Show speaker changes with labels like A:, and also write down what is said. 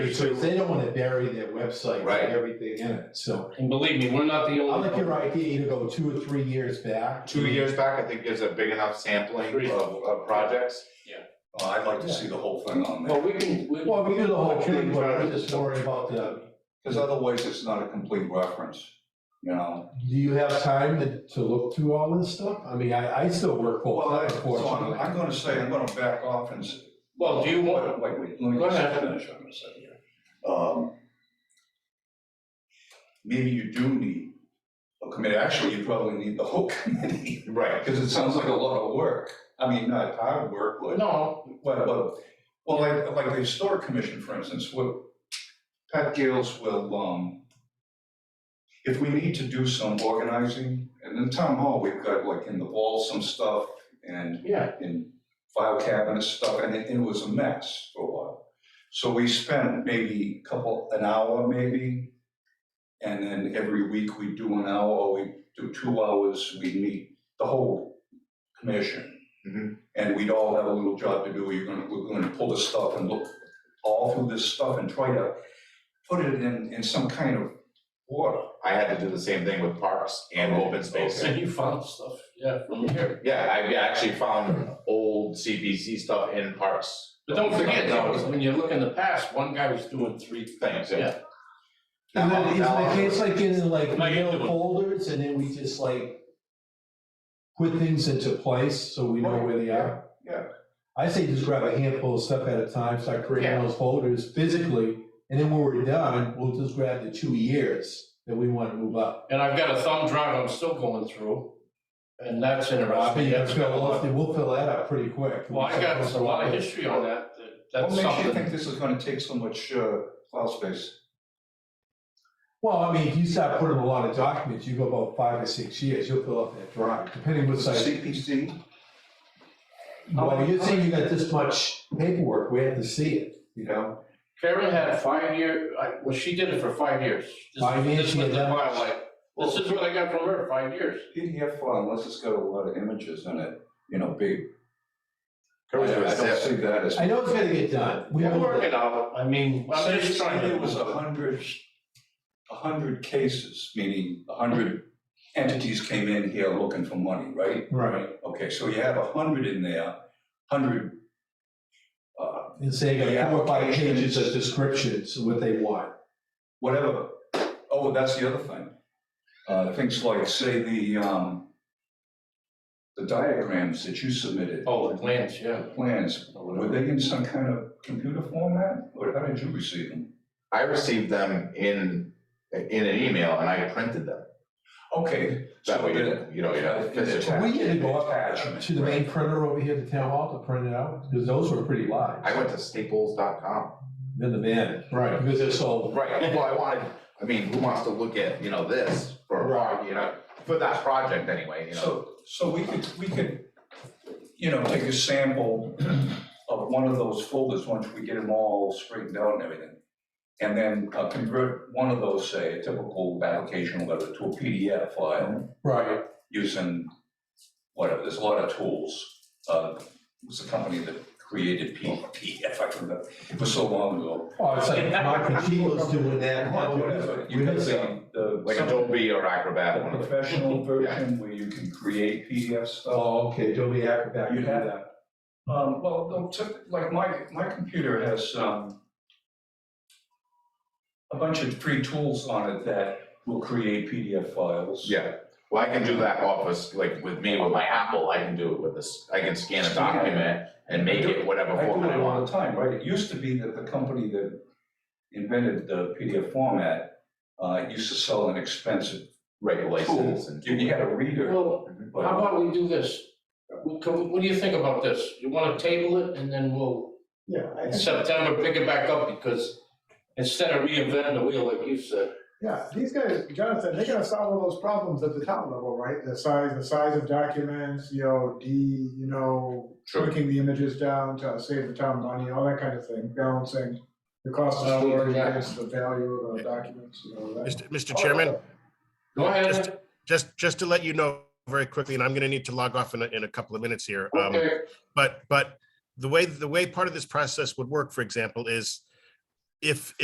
A: Because they don't wanna bury their website
B: Right.
A: and everything in it, so.
C: And believe me, we're not the
A: I
C: only.
A: like your idea to go two or three years back.
B: Two years back, I think there's a big enough sampling
C: Three.
B: of, of projects.
D: Well, Uh, I'd like to see the whole thing on there,
C: Well, we can, we,
A: Well, we do the whole
D: Like,
A: thing, but I'm
D: trying to-
A: just worried about the,
D: because otherwise it's not a complete reference, you know?
A: do you have time to, to look through all this stuff? I mean, I, I still work full
D: Well, I-
A: time,
D: so I'm,
A: unfortunately.
D: I'm gonna say, I'm gonna back off and. s-
C: well, do you want,
D: Wait, wait, wait, let me
C: Go
D: just
C: ahead.
D: finish, I'm gonna say here. Um, Maybe you do need a committee, actually, you probably need the whole committee,
B: Right.
D: because it sounds like a lot of work. I mean, not hard work, but.
C: no,
D: Well, well, well, like, like the historic commission, for instance, what Pat Gales will, um, if we need to do some organizing, and in town hall, we've got like in the wall some stuff and
C: yeah,
D: in file cabinet stuff, and it, it was a mess for a while. So we spent maybe a couple, an hour maybe, and then every week we do an hour, or we do two hours, we meet the whole commission.
C: Mm-hmm.
B: Mhm.
D: And we'd all have a little job to do, you're gonna, we're gonna pull this stuff and look all through this stuff and try to put it in, in some kind of order.
B: I had to do the same thing with parks and open space.
C: and you found stuff, yeah, from here.
B: Yeah, I actually found old CPC stuff in parks.
C: But don't forget,
B: That
C: though, when you look in the past, one guy was doing three
B: Things,
C: things,
B: yeah.
C: yeah.
A: And then, isn't
B: Now- uh,
A: the case like in like
C: Like,
A: mail folders and then we just like put things into place so we know where they are?
D: Yeah,
A: I say just grab a handful of stuff at a time, start creating
B: Yeah.
A: those folders physically, and then when we're done, we'll just grab the two years that we wanna move up.
C: And I've got a thumb drive I'm still going through, and that's
A: Robbie,
C: interesting.
A: you
C: That's
A: fill
C: got a lot-
A: off- we'll fill that up pretty quick.
C: Well, I got a lot of history on that, that-
D: what
C: that's
D: makes you think
C: something.
D: this is gonna take so much, uh, file space?
A: Well, I mean, if you start putting a lot of documents, you go about five or six years, you'll fill up that drive, depending what size.
D: CPC?
A: Well, you're saying you got this much paperwork, we have to see it, you know?
C: Karen had five year, I, well, she did it for five years. This-
A: Five years,
C: This
A: she
C: was
A: had
C: the
A: that much.
C: file, like, this is what I got from her, five years.
D: PDF file, unless it's got a lot of images in it, you know, big. I I
B: Courage was
D: don't
B: zip.
D: see that as.
A: I know it's gonna get done. We
C: We're
A: will get-
C: working out, I mean, I'm
D: Say-
C: just
D: say
C: trying to.
D: There was a hundred, a hundred cases, meaning a hundred entities came in here looking for money, right?
A: Right,
D: Okay, so you have a hundred in there, hundred, uh,
A: and say you got
D: Yeah,
A: four or five
D: applications.
A: pages of descriptions of what they want.
D: whatever. Oh, that's the other thing. Uh, things like, say, the, um, the diagrams that you submitted.
C: Oh, the plans, yeah.
D: Plans, were they in some kind of computer format, or how did you receive them?
B: I received them in, in an email and I printed them.
D: Okay.
B: That
D: so
B: way, you
D: then-
B: don't- you know, you have physical.
A: We had to go up
D: Attachment,
A: to the main printer over here at the town hall to print it out, because those were pretty
B: I
A: live.
B: went to staples.com.
A: In the van, right, because they're so,
B: Right, well, I wanted, I mean, who wants to look at, you know, this for, a pro- you know, for that project anyway, you know?
D: So, so we could, we could, you know, take a sample of one of those folders, once we get them all straightened out and everything. And then uh, convert one of those, say, a typical application letter to a PDF file
A: right,
D: using whatever, there's a lot of tools. Uh, it was the company that created P- PDF, I forgot, it was so long ago.
A: oh, it's like Mike Pacheco's doing that. now.
D: Whatever, You can say the.
B: Like Adobe or Acrobat, one
D: The
B: of the,
D: professional version where you can create PDF stuff.
A: Oh, okay, Adobe Acrobat, you
D: You
A: do
D: have-
A: that.
D: Um, well, no, typ- like my, my computer has, um, a bunch of free tools on it that will create PDF files.
B: yeah. Well, I can do that office, like with me, with my Apple, I can do it with this, I can scan a document and make it whatever
D: I do
B: format I
D: it all
B: want.
D: the time, right? It used to be that the company that invented the PDF format, uh, used to sell an expensive,
B: Right, license and.
D: you, you had a reader,
C: Well,
D: but.
C: how about we do this? We can- What do you think about this? You wanna table it and then we'll,
A: Yeah,
C: in September, pick it back up because instead of reinventing the wheel like you said.
E: Yeah, these guys, Jonathan, they gotta solve all those problems at the top level, right? The size, the size of documents, you know, D, you know,
B: Sure.
E: shrinking the images down to save the town money, all that kind of thing, balancing the cost
C: Oh,
E: of storage
C: yeah.
E: against the value of the documents, you know, that.
F: Mr. Mr. Chairman,
C: Go ahead,
F: Just- just, just to let you know very quickly, and I'm going to need to log off in a, in a couple of minutes here. um,
C: okay,
F: But, but the way, the way part of this process would work, for example, is if,